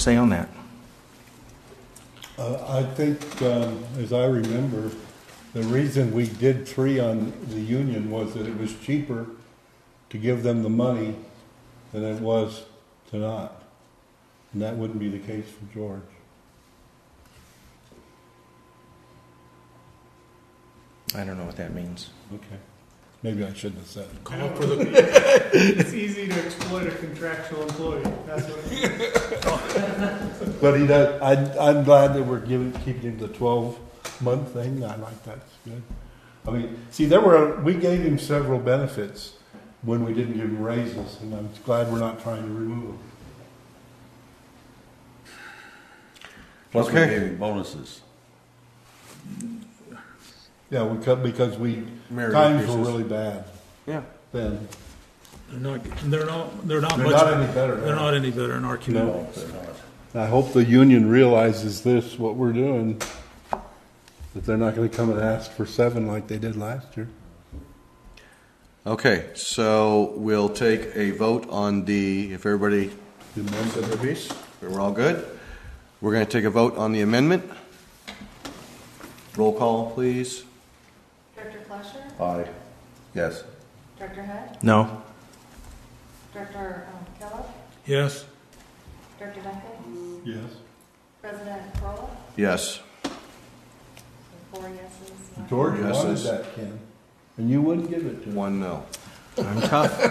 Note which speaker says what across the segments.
Speaker 1: say on that?
Speaker 2: Uh, I think, um, as I remember, the reason we did three on the union was that it was cheaper to give them the money than it was to not. And that wouldn't be the case for George.
Speaker 1: I don't know what that means.
Speaker 2: Okay. Maybe I shouldn't have said it.
Speaker 3: Call for the. It's easy to exploit a contractual employee, that's what it is.
Speaker 2: But he does, I, I'm glad that we're giving, keeping him the twelve month thing, I like that, it's good. I mean, see, there were, we gave him several benefits when we didn't give him raises, and I'm glad we're not trying to remove them.
Speaker 4: Plus, we
Speaker 1: Okay.
Speaker 4: gave him bonuses.
Speaker 2: Yeah, we cut, because we,
Speaker 4: Merit
Speaker 2: times were
Speaker 4: increases.
Speaker 2: really bad
Speaker 1: Yeah.
Speaker 2: then.
Speaker 5: They're not, they're not, they're not
Speaker 2: They're
Speaker 5: much.
Speaker 2: not any better now.
Speaker 5: They're not any better in our community.
Speaker 2: No. I hope the union realizes this, what we're doing, that they're not gonna come and ask for seven like they did last year.
Speaker 4: Okay, so we'll take a vote on the, if everybody said their piece, we're all good. We're going to take a vote on the amendment. Roll call, please.
Speaker 6: Director Flasher,
Speaker 4: Aye. Yes.
Speaker 6: Director Head,
Speaker 1: No?
Speaker 6: Director um, Kellogg,
Speaker 5: Yes,
Speaker 6: Director Duncan,
Speaker 2: Yes.
Speaker 6: President Corolla,
Speaker 4: Yes.
Speaker 6: so four yeses. one-
Speaker 2: George
Speaker 4: Yes,
Speaker 2: wanted
Speaker 4: it's-
Speaker 2: that, Ken, and you wouldn't give it to him.
Speaker 4: One no.
Speaker 1: I'm tough.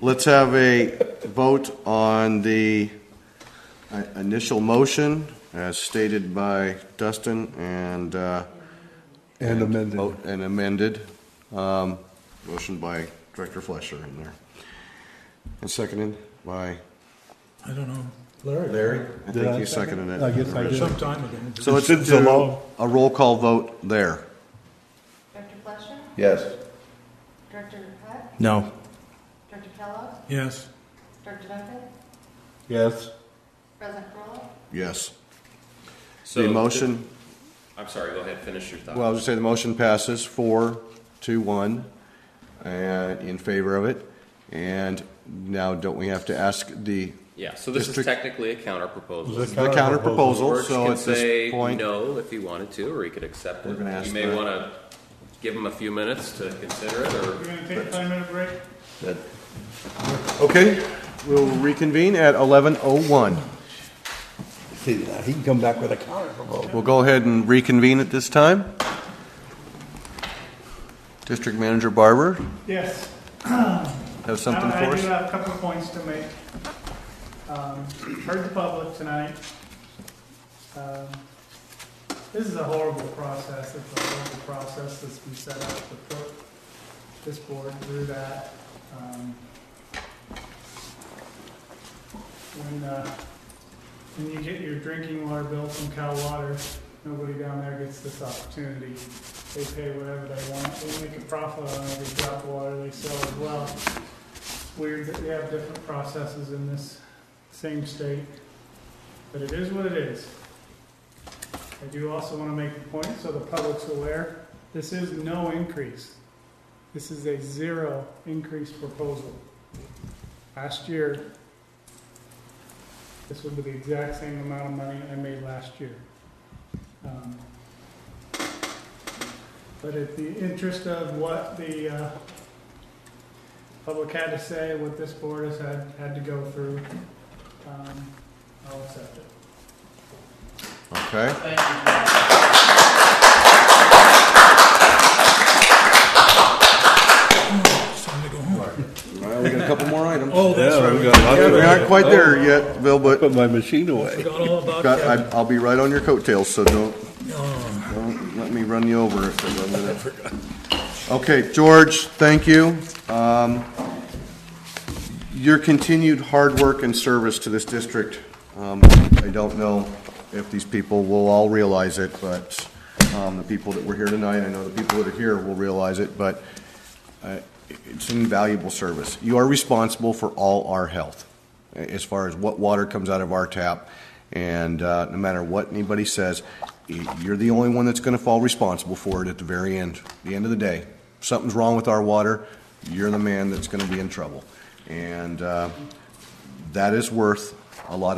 Speaker 4: Let's have a vote on the uh, initial motion as stated by Dustin and uh,
Speaker 2: And amended.
Speaker 4: vote and amended. Um, Motion by Director Fletcher in there. And seconded by
Speaker 5: I don't know. Larry,
Speaker 4: Larry. I
Speaker 2: Did
Speaker 4: think
Speaker 2: I
Speaker 4: you
Speaker 2: second
Speaker 4: seconded
Speaker 2: it?
Speaker 4: it.
Speaker 2: I guess I did.
Speaker 5: some time ago.
Speaker 4: So it's
Speaker 2: Since the law.
Speaker 4: to a roll call vote there.
Speaker 6: Director Flasher,
Speaker 4: Yes.
Speaker 6: Director Head,
Speaker 1: No.
Speaker 6: Director Kellogg,
Speaker 5: Yes,
Speaker 6: Director Duncan,
Speaker 2: Yes.
Speaker 6: President Corolla,
Speaker 4: Yes.
Speaker 7: So
Speaker 4: The motion,
Speaker 7: I'm sorry, go ahead, finish your thought.
Speaker 4: well, I was just saying, the motion passes four to one and in favor of it. And now don't we have to ask the,
Speaker 7: Yeah, so this is
Speaker 4: District-
Speaker 7: technically a counter proposal.
Speaker 4: the counter proposal?
Speaker 7: George
Speaker 4: So
Speaker 7: can
Speaker 4: at this
Speaker 7: say
Speaker 4: point,
Speaker 7: no if he wanted to, or he could accept
Speaker 4: We're
Speaker 7: it.
Speaker 4: gonna ask
Speaker 7: You may
Speaker 4: that.
Speaker 7: want to give him a few minutes to consider it, or
Speaker 3: We're gonna take a five-minute break.
Speaker 4: okay, we'll reconvene at eleven oh one.
Speaker 2: See, now he can come back with a counter proposal.
Speaker 4: We'll go ahead and reconvene at this time. District Manager Barber,
Speaker 3: Yes.
Speaker 4: have something
Speaker 3: I-
Speaker 4: for
Speaker 3: I do
Speaker 4: us?
Speaker 3: have a couple of points to make. Um, Heard the public tonight. Um, This is a horrible process, it's a horrible process that's been set up to put this board through that. Um, When, uh, when you get your drinking water bill from Cal Water, nobody down there gets this opportunity. They pay whatever they want, they make a profit on every drop of water they sell as well weird that we have different processes in this same state, but it is what it is. I do also want to make the point, so the public's aware, this is no increase. This is a zero increase proposal. Last year, this would be the exact same amount of money I made last year. Um, But at the interest of what the, uh, public had to say, what this board has had, had to go through, um, I'll accept it.
Speaker 4: Okay.
Speaker 5: it's time to go home.
Speaker 4: Well, we got a couple more items.
Speaker 5: Oh, that's
Speaker 2: Yeah,
Speaker 5: right.
Speaker 2: we got a lot
Speaker 4: We
Speaker 2: of- Oh.
Speaker 4: aren't quite there yet, Bill, but
Speaker 2: Put my machine away.
Speaker 5: Forgot all about
Speaker 4: got-
Speaker 5: Kevin.
Speaker 4: I- I'll be right on your coattails, so don't,
Speaker 5: Oh,
Speaker 4: don't let me run you over. if I'm gonna- Okay, George, thank you. Um, Your continued hard work and service to this district, um, I don't know if these people will all realize it, but um, the people that were here tonight, I know the people that are here will realize it, but uh, it's invaluable service. You are responsible for all our health, a- as far as what water comes out of our tap, and uh, no matter what anybody says, y- you're the only one that's going to fall responsible for it at the very end, the end of the day. Something's wrong with our water, you're the man that's going to be in trouble. And uh, that is worth a lot